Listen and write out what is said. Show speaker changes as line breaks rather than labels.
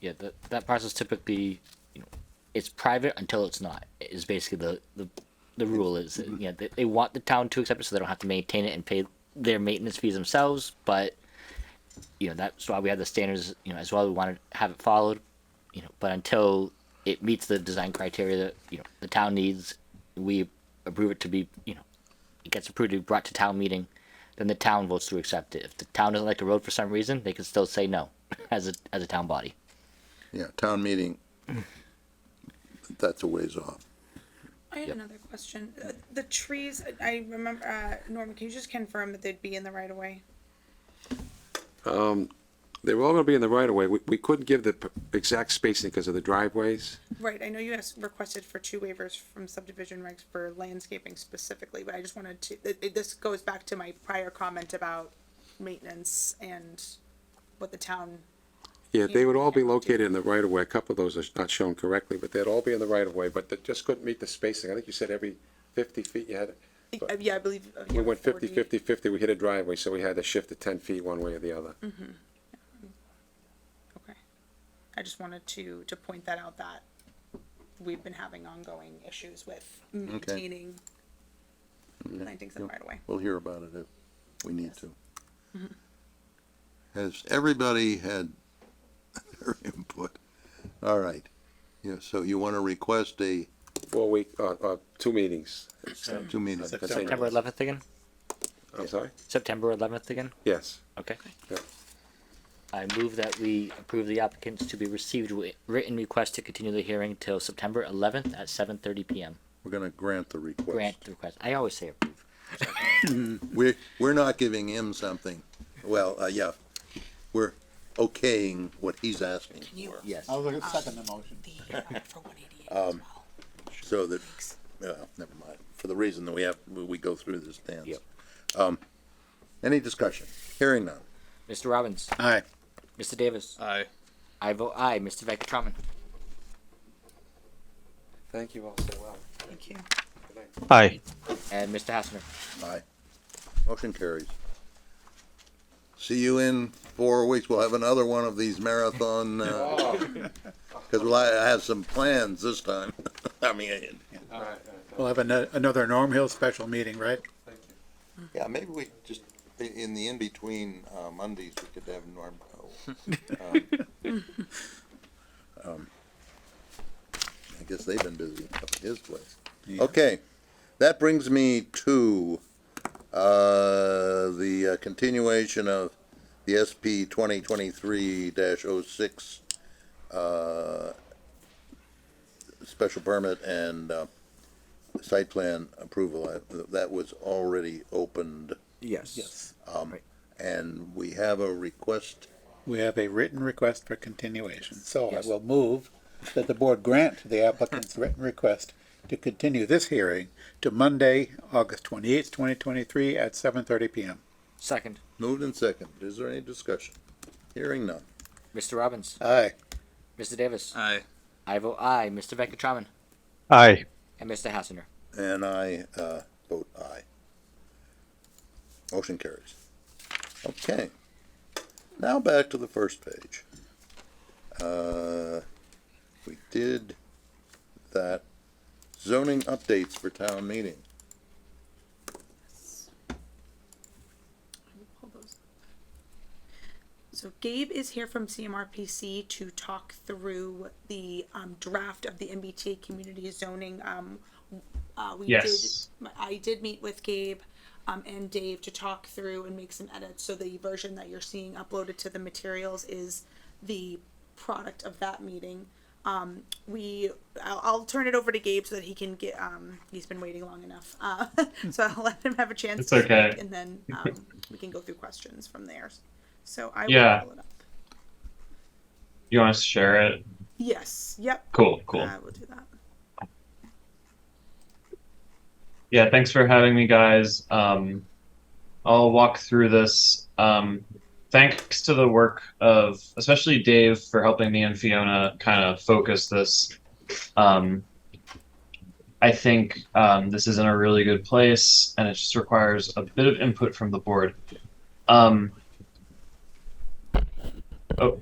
Yeah, that that process typically, you know, it's private until it's not. Is basically the the the rule is that, yeah they, they want the town to accept it so they don't have to maintain it and pay their maintenance fees themselves. But you know that's why we have the standards. You know as well we want to have it followed. You know, but until it meets the design criteria that you know the town needs, we approve it to be you know it gets approved to be brought to town meeting. Then the town votes to accept it. If the town doesn't like the road for some reason, they can still say no as a as a town body.
Yeah, town meeting, that's a ways off.
I had another question. Uh, The trees, I remember, uh, Norman, can you just confirm that they'd be in the right of way?
They were all gonna be in the right of way. We, we couldn't give the p- exact spacing because of the driveways.
Right, I know you asked, requested for two waivers from subdivision regs for landscaping specifically, but I just wanted to, it, it- this goes back to my prior comment about maintenance and what the town,
Yeah, they would all be located in the right of way. A couple of those are not shown correctly, but they'd all be in the right of way, but they just couldn't meet the spacing. I think you said every fifty feet you
Uh,
had,
yeah, I believe. uh,
we
yeah,
went 50,
40
50, 50. we hit a driveway, so we had to shift it ten feet one way or the other.
Okay. I just wanted to, to point that out that we've been having ongoing issues with maintaining plantings in the right of way.
We'll hear about it if we need to. Has everybody had their input? All right. Yeah, so you want to request a,
Four week, uh, uh, two meetings.
two meetings.
That's eight
September
months.
11th again?
I'm sorry?
September 11th again?
Yes.
Okay.
Yeah.
I move that we approve the applicants to be received wi- written request to continue the hearing till September 11th at 7:30 PM.
We're going to grant the request.
Grant the request. I always say approve.
We're, we're not giving him something. Well, uh, yeah, we're okaying what he's asking for.
Yes.
I was looking second the motion.
So that, well, never mind, for the reason that we have, we- we go through this dance.
Yep.
Um, any discussion? Hearing none.
Mr. Robbins.
Aye.
Mr. Davis.
Aye.
I vote aye. Mr. Veckatraman.
Thank you all so well.
Thank you.
Aye.
And Mr. Hassner.
Aye. Motion carries. See you in four weeks. We'll have another one of these marathon, uh, cause we'll ha- have some plans this time. I mean,
We'll have ano- another Norm Hill special meeting, right?
yeah, maybe we just, i- in the in-between, uh, Mondays, we could have Norm. oh, um, um, I guess they've been busy up at his place.
Yeah.
Okay, that brings me to, uh, the uh, continuation of the SP twenty twenty-three 6 uh, special permit and, uh, site plan approval. I- That was already opened,
Yes.
and we have a request
We have a written request for continuation, so I
Yes.
will move that the board grant the applicant's written request to continue this hearing to Monday, August twenty-eighth, twenty twenty-three at seven thirty PM.
Second.
Moved and seconded. Is there any discussion? Hearing none.
Mr. Robbins.
Aye.
Mr. Davis.
Aye.
I vote aye. Mr. Veckatraman.
Aye.
And Mr. Hassner.
And I, uh, vote aye. Motion carries. Okay. Now back to the first page. Uh, we did that zoning updates for town meeting.
Pull those. So Gabe is here from CMRPC to talk through the um, draft of the MBTA community zoning. Um, uh, we
Yes.
did, I did meet with Gabe um, and Dave to talk through and make some edits. So the version that you're seeing uploaded to the materials is the product of that meeting. Um, we, I'll, I'll turn it over to Gabe so that he can get. Um, he's been waiting long enough, uh, so I'll let him have a chance.
It's
to
okay.
speak, And then um, we can go through questions from there. So I will
Yeah.
pull it up.
You want us to share it?
Yes. Yep.
Cool, cool.
I will do that.
Yeah, thanks for having me, guys. Um, I'll walk through this. Um, thanks to the work of especially Dave for helping me and Fiona kind of focus this. Um, I think um, this is in a really good place, and it just requires a bit of input from the board. Um, oh,